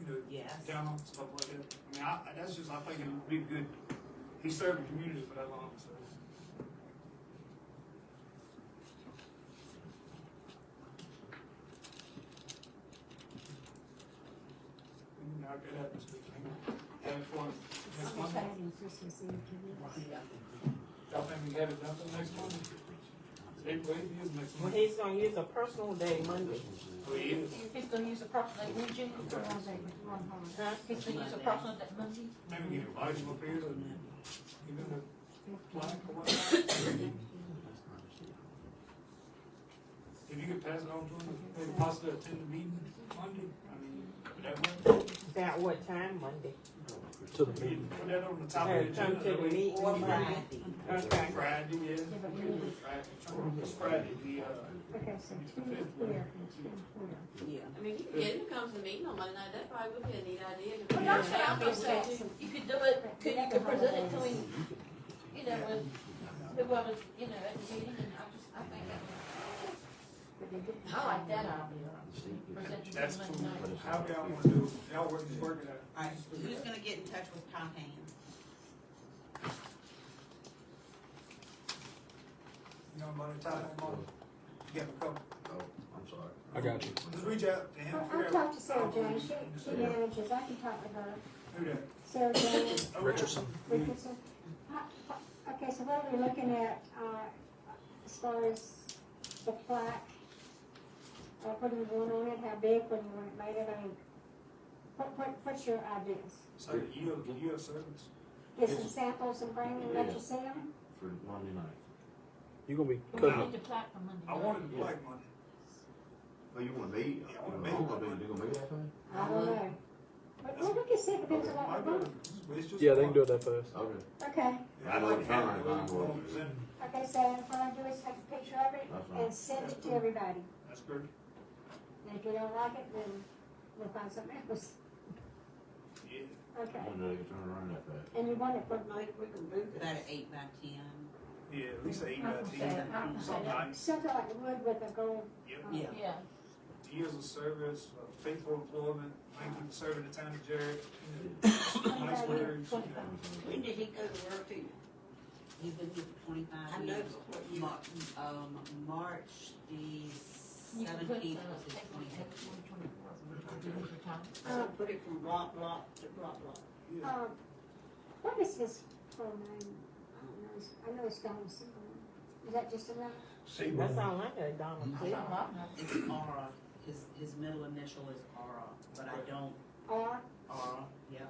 you know, Yes. down on stuff like that. I mean, I, that's just, I think it would be good. He served the community for that long, so. And I'll get up this weekend. Have fun. Next Almost Monday. having Christmas Eve, can you? Y'all think we have it done for next Monday? April eighth is next Monday. He's gonna use a personal day Monday. Oh, yeah. He's gonna use a personal, like, Monday. Come on, baby, come on home. Huh? He's gonna use a personal, that Monday. Maybe get invited up here and even a plaque or whatnot. If you could pass it on to them, maybe possibly attend the meeting Monday, I mean, would that work? About what time Monday? To the We meeting. can Put that on the top of the Okay, Come agenda. to the that way- meeting Or Friday. Okay. Friday, yeah. we can do it Friday. It's Friday, the, uh, Okay, so two here and two here. Yeah. I mean, you can get him to come to the meeting on Monday night, that probably would be a neat idea. to- Well, don't say, I'm just saying, you could do it, could, you could present it to him, you know, with whoever's, you know, at the meeting, and I just, I think that, I like that idea. Present it that's to him cool. Monday night. How y'all wanna do, it? y'all work, work it out. All right, who's gonna get in touch with Tom Haynes? You know, by the time, I'm on, you got a couple, Oh, I'm sorry. I got you. just reach out to him, Well, figure I'll out. talk to Sarah Jane, she, she manages, I can talk to her. Who that? Oh, Sarah Jane Okay. Richardson. Richardson. Uh, uh, Okay, so what are we looking at, uh, as far as the plaque? Uh, what do we want on it, how big, what do you want it made of, I mean, what, what, what's your ideas? So, you, you a service. Get some samples and bring them, let you see them? For Monday night. You're gonna be We cutting need up. the plaque for Monday I night. wanted to like Monday. Oh, you want me? Yeah, I You want me. want me? Oh, they- they gonna make that thing? I don't know. But, well, we can see, it depends on My what we brother, do. it's just. Yeah, they can do it that fast. Okay, Okay, I like having it. okay, so what I do is take a picture of it That's fine. and send it to everybody. That's good. And if you don't like it, then we'll find something else. Yeah. Okay. I wonder if they can turn around that fast. And you want it for Like, we can move that at eight by ten. Yeah, at least eight by ten, I'm something like, something like wood with a gold, yeah. Yeah. Yeah, Years of service, uh, faithful employment, thank you for serving the town of Jared. Nice words, you know. When did he go to work too? He's been here for twenty-five years. Mar- Um, March the you can put, uh, seventeenth was his take one, twenty. take one, twenty-four, twenty-four times. So put it from block, block to block, block. Yeah. um, what is this for name? I don't know, It's- I know it's Donna Seaborn. Is that just enough? That's all I got, Donald. That's not hot enough. It's Ara, his, his middle initial is Ara, but I don't, R Ara, yeah,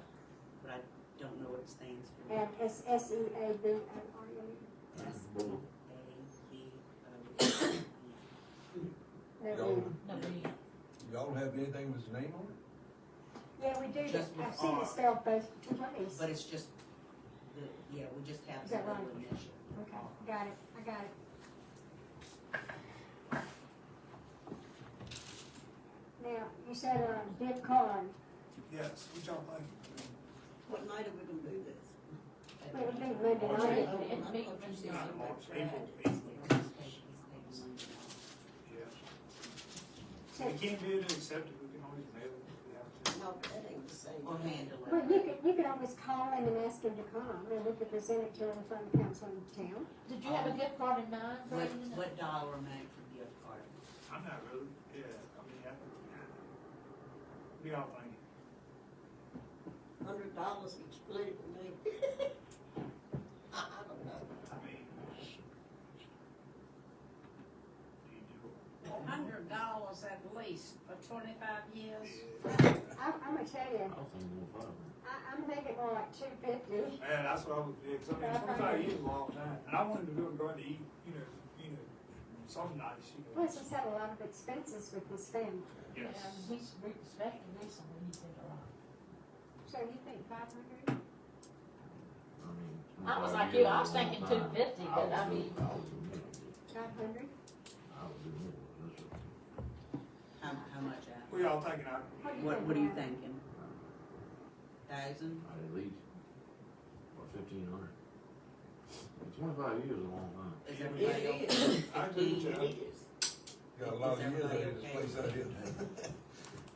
but I don't know what it stands for. and S S E A B O R E. S Boom. A B O N. No, we- No, we- Y'all have anything with his name on it? Yeah, we do, Just that. I've seen R. it spelled both two ways. But it's just, the, yeah, we just have Is the that little right? initial. Okay, got it, I got it. Now, you said a bid card, Yes, we y'all think? What night are we gonna do this? but it would be Monday March night. eighth. It may- Not March, April, April. Well, Yeah. So- We can't do it accept it, we can always mail it if we have to. that ain't the same. Or handle Well, you it. could, you could always call him and ask him to come, and we could present it to him in front of council in town. Did you have a gift card in mind, What, Brandon? what dollar amount for gift card? I'm not really, yeah, I mean, I, we all think. Hundred dollars each split with me. I, I don't know. I mean, do you hundred dollars at least for twenty-five years. do? it? I, I'm gonna tell you, I was thinking more five. I, I'm thinking more like two fifty. Yeah, that's what I was, yeah, 'cause I mean, twenty-five years is a long time, and I wanted to go and go out to eat, you know, you know, something nice, you know. Plus, he's had a lot of expenses with his family, Yeah, Yes. he's re- especially recently, he did a lot. so you think five hundred? I mean, I was 25 like years you, I was is a long thinking time. 250, but was I doing- mean- I was doing more. Five hundred? I was doing more, that's what- How, how much, Al? What y'all thinking, I, What, what are you thinking? Thousand? I at least, what, fifteen hundred? Twenty-five years is a long time. Is everybody okay? I agree with you. Fifteen? Got a lot of Is years out everybody here, this place out here.